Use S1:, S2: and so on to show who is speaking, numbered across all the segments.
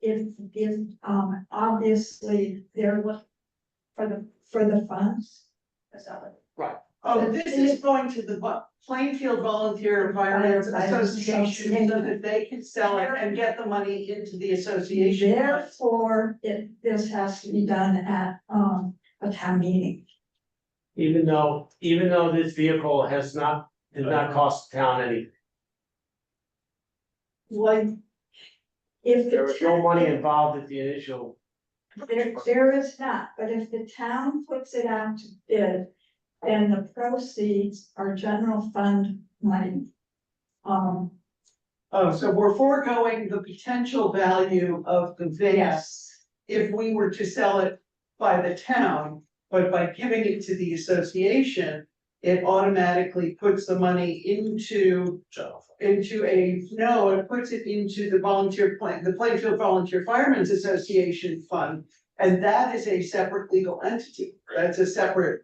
S1: if, if, um, obviously they're look for the, for the funds. That's all.
S2: Oh, this is going to the Vo- Plainfield Volunteer Environment Association, so that they can sell it and get the money into the association.
S1: Therefore, it, this has to be done at, um, a town meeting.
S3: Even though, even though this vehicle has not, did not cost the town any,
S1: Like, if. the
S3: there was no
S1: town-
S3: money involved at the initial.
S1: There, there is not, but if the town puts it out to bid, then the proceeds are general fund money. Um,
S2: Oh, so we're foregoing the potential value of the vase
S1: yes,
S2: if we were to sell it by the town. But by giving it to the association, it automatically puts the money into into a, no, it puts it into the volunteer plan, the Plainfield Volunteer Firemen's Association Fund. And that is a separate legal entity, that's a separate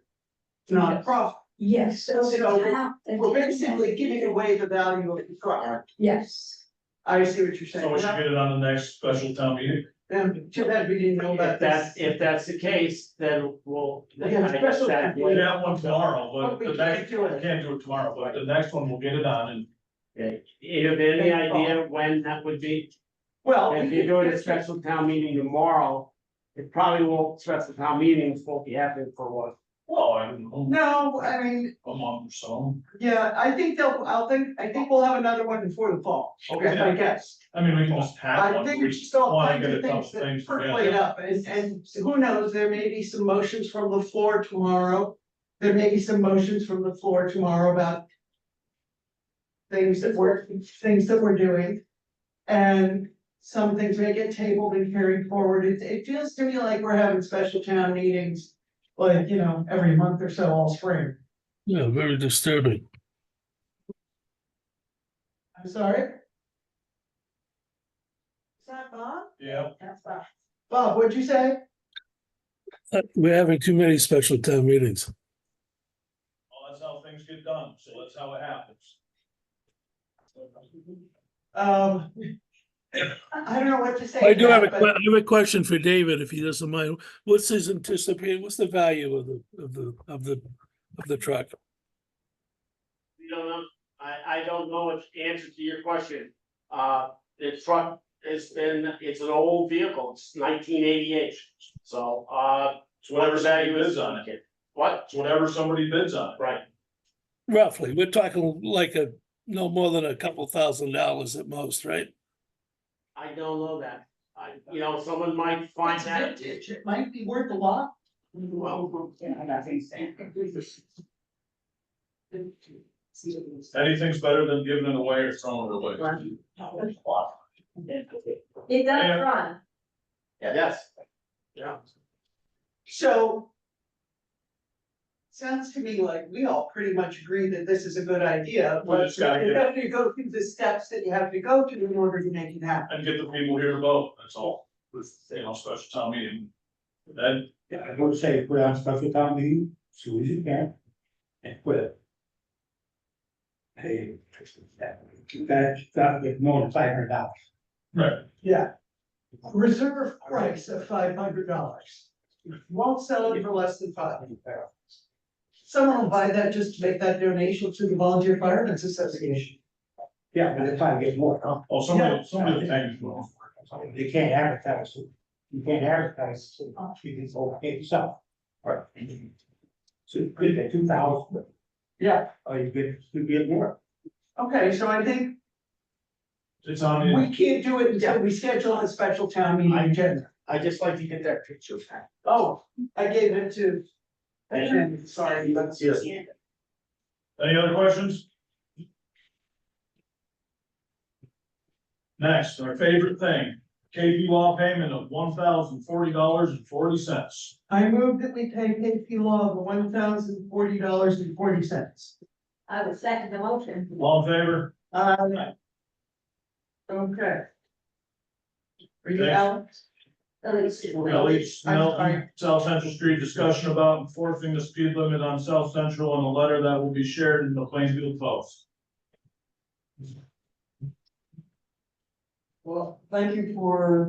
S2: nonprofit.
S1: yes, so the
S2: So,
S1: town. the
S2: We're
S1: town-
S2: basically giving away the value of the car.
S1: Yes,
S2: I see what you're
S4: So we should
S2: saying.
S4: get it on the next special town meeting.
S2: Um, too bad we didn't know
S3: If
S2: about
S3: that's,
S2: this.
S3: if that's the case, then we'll.
S2: We have a special-
S3: That-
S4: We have one tomorrow,
S2: But
S4: but
S2: we
S4: the
S2: can't
S4: next,
S2: do it.
S4: we can't do it tomorrow, but the next one we'll get it on and.
S3: You have any idea when that would be?
S2: Well.
S3: If
S2: we
S3: you're doing a
S2: could-
S3: special town meeting tomorrow, it probably won't, special town meetings won't be happening for what?
S4: Well, I don't know,
S2: No, I mean,
S4: a month or so.
S2: yeah, I think they'll, I'll think, I think we'll have another one before the fall, is my guess.
S4: I mean, we can just have
S2: I
S4: one.
S2: think
S4: We
S2: it's
S4: just
S2: all
S4: wanna
S2: kinds
S4: get a
S2: of
S4: couple
S2: things that
S4: things
S2: percolate
S4: together.
S2: up, and, and who knows, there may be some motions from the floor tomorrow. There may be some motions from the floor tomorrow about. Things that we're, things that we're doing. And some things may get tabled and carried forward, it, it feels to me like we're having special town meetings. Like, you know, every month or so all spring,
S5: Yeah, very disturbing.
S2: I'm sorry. Is that Bob?
S4: Yeah,
S2: That's Bob. Bob, what'd you say?
S5: Uh, We're having too many special town meetings.
S4: well, that's how things get done, so that's how it happens.
S2: Mm-hmm. Um. I don't know what to say.
S5: I do
S2: to
S5: have a,
S2: that,
S5: que-
S2: but
S5: I have a question for David, if he doesn't mind. What's his anticipated, what's the value of the, of the, of the, of the truck?
S3: We don't know, I, I don't know its answer to your question. Uh, the truck has been, it's an old vehicle, it's nineteen eighty-eight, so, uh,
S4: It's whatever somebody bids on it,
S3: What?
S4: it's whatever somebody bids on it.
S3: Right,
S5: Roughly, we're talking like a, no more than a couple thousand dollars at most, right?
S3: I don't know that, I, you know, someone might find
S2: it's
S3: that.
S2: vintage, It might be worth a lot.
S3: Well,
S4: Anything's better than giving it away or throwing it away.
S6: It does
S4: Yeah.
S6: run.
S3: yes. Yeah,
S2: So. Sounds to me like we all pretty much agree that this is a good idea,
S4: We
S2: but
S4: just gotta
S2: you
S4: get-
S2: have to go through the steps that you have to go through in order to make it happen.
S4: And get the people here to vote, that's all, with, you know, special town meeting. Then
S7: Yeah, I would say put on special town meeting, soon as you can, and put it. Hey, that, that with more than five hundred dollars.
S2: Yeah. Reserve price of five hundred dollars. Won't sell it for less than five. Someone will buy that just to make that donation to the Volunteer Firemen's Association.
S7: Yeah, but if I get more, huh?
S4: Oh, somebody, somebody thank you.
S7: You can't advertise, it. you can't advertise, it. you can go pay yourself. Right. So you could get two thousand.
S2: Yeah.
S7: Or you could, you get more.
S2: Okay, so I think
S4: It's on the.
S2: we can't do it until we schedule a special town meeting agenda.
S3: I just like to get that picture back.
S2: Oh, I gave it to.
S3: Yeah.
S2: Sorry, but
S3: Yes.
S4: Any other questions? Next, our favorite thing, KP Law payment of one thousand forty dollars and forty cents.
S2: I move that we pay KP Law the one thousand forty dollars and forty cents.
S6: I would second the motion.
S4: All in favor?
S2: Um. Okay. Are you
S4: Thanks.
S2: out?
S6: Elise.
S4: Elise
S2: I'm sorry.
S4: Melton, E, South Central Street, discussion about enforcing the speed limit on South Central and a letter that will be shared in the Plainfield Post.
S2: Well, thank you for